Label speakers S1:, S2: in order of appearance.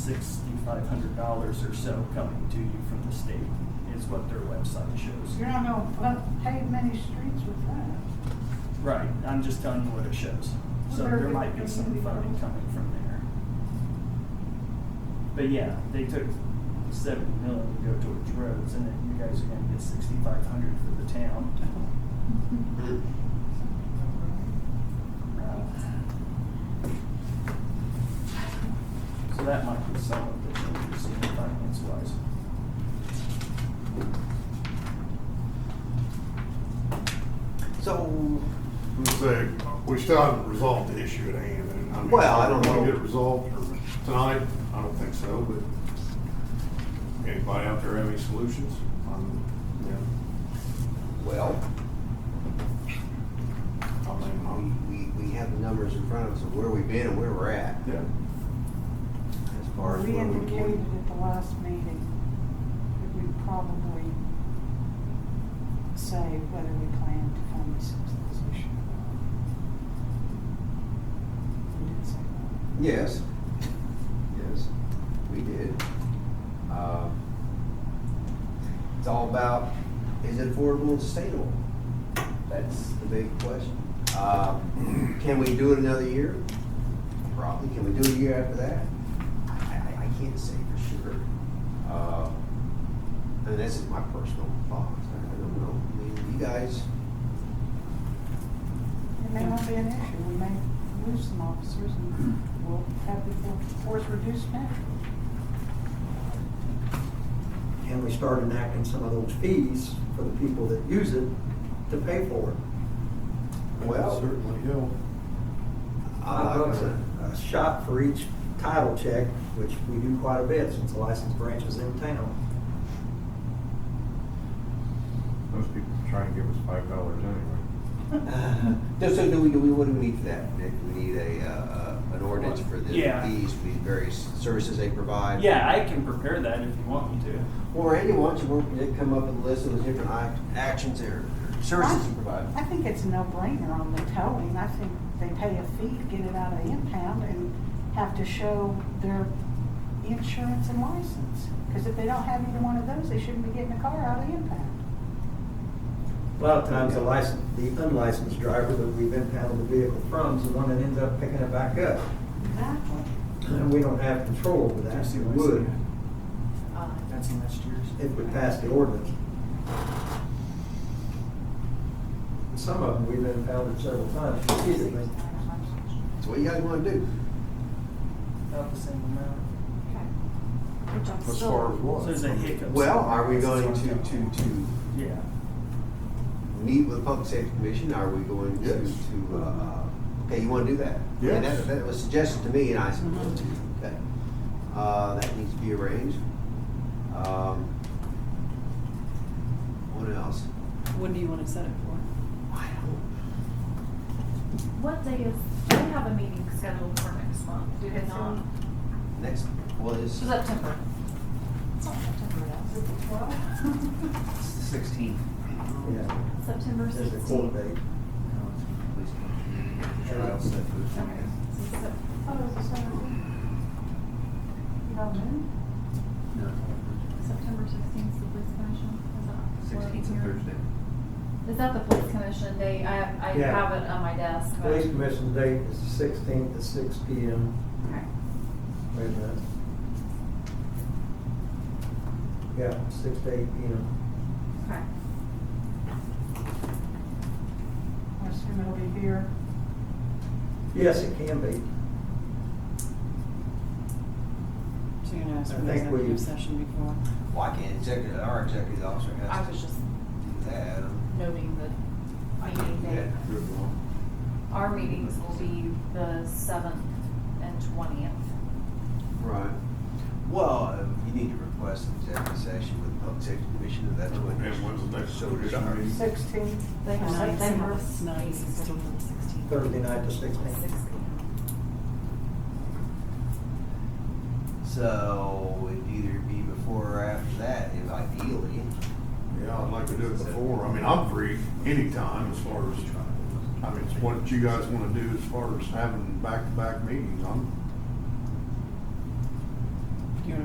S1: sixty-five hundred dollars or so coming to you from the state is what their website
S2: You're
S1: shows.
S2: not gonna fu- pave many streets with that.
S1: Right, I'm just telling you what it shows. So there might be some funding coming from there. But yeah, they took seventy million to go towards roads and then you guys are gonna get sixty-five hundred for the town. Right. So that might be some of the changes in finance wise.
S3: So,
S4: I'm gonna say, we still haven't resolved the issue at hand, and I mean.
S3: Well, I don't know.
S4: Will it get resolved or tonight? I don't think so, but anybody out there have any solutions? Um, yeah,
S3: well,
S4: I mean,
S3: we,
S4: I'm,
S3: um, we, we have the numbers in front of us of where we've been and where we're at
S4: yeah,
S3: as far as
S2: We
S3: where we
S2: indicated
S3: can.
S2: at the last meeting that we'd probably say whether we plan to fund this position. We did say that.
S3: Yes, yes, we did. Uh, It's all about, is it affordable and sustainable? That's the big question. Uh, Can we do it another year? Probably. Can we do it a year after that? I, I, I can't say for sure. Uh, And this is my personal thoughts. I I don't know. I mean, you guys,
S2: It may not be an issue, we may lose some officers and we'll have the force reduced now.
S5: and we start enacting some of those fees for the people that use it to pay for it.
S3: well.
S4: certainly, yeah.
S5: Five bucks a a shot for each title check, which we do quite a bit since the license branch is in town.
S6: Most people try and give us five dollars anyway.
S3: So, so do we, do we, what do we need for that, Nick? Do we need a, uh, an ordinance for the
S1: Yeah.
S3: fees, for the various services they provide?
S1: Yeah, I can prepare that if you want me to.
S3: Well, Randy, why don't you work, Nick, come up with a list of the different act- actions or services you provide?
S2: I think it's a no-brainer on the towing. I think they pay a fee to get it out of the impound and have to show their insurance and license. Because if they don't have either one of those, they shouldn't be getting a car out of the impound.
S5: A lot of times, the license, the unlicensed driver that we've impounded the vehicle from is the one that ends up picking it back up.
S2: Exactly.
S5: And we don't have control over that, we would
S1: That's next year's.
S5: if we passed the ordinance. And Some of them we've impounded several times repeatedly.
S3: So what you guys wanna do?
S1: About the same amount.
S7: Which I'm
S4: As far as
S7: still,
S1: So
S4: what?
S1: there's a hiccup.
S3: Well, are we
S1: somewhere.
S3: going to, to, to
S1: Yeah.
S3: meet with the Public Safety Commission? Are we going to,
S4: Yes.
S3: to, uh, okay, you wanna do that? And
S4: Yes.
S3: that, that was suggested to me, and I said, okay, uh, that needs to be arranged. Um, What else?
S8: When do you want to set it for?
S3: I don't,
S7: what day is, we have a meeting scheduled for next month, do we not?
S3: next, well, it's
S7: September. It's not September,
S2: Is it the 12th?
S6: Sixteen.
S5: Yeah,
S7: that's September
S5: there's a
S7: sixteenth.
S5: court date.
S3: trial set for
S7: Okay. so Sep-
S2: Oh, it was the 17th. About noon?
S7: September sixteenth, the police commission, is that? what I'm hearing? Is that the police commission day? I, I
S5: Yeah.
S7: have it on my desk, but.
S5: Police commission date is the sixteenth at six P M.
S7: Okay.
S5: Wait a minute. Yeah, six to eight P M.
S7: Okay.
S2: I assume it'll be here.
S5: Yes, it can be.
S8: So you're gonna ask
S5: I
S8: for an
S5: think we-
S8: executive session before?
S3: Why can't executive, our executive officer
S8: I
S3: has to
S8: was just
S3: do that?
S7: Noting the
S3: I can't
S7: meeting
S3: do that.
S7: date. Our meetings will be the seventh and twentieth.
S3: Right. Well, uh, you need to request an executive session with the Public Safety Commission, and that's what.
S4: And when's the next
S3: So did I.
S4: meeting?
S2: 16th.
S7: They have,
S8: Tonight,
S7: they have.
S8: it's not, it's still on the 16th.
S5: Thursday night to sixteenth.
S7: Six P M.
S3: So it'd either be before or after that, if ideally.
S4: Yeah, I'd like to do it before, I mean, I'm free anytime as far as, I mean, it's what you guys wanna do as far as having back-to-back meetings, I'm,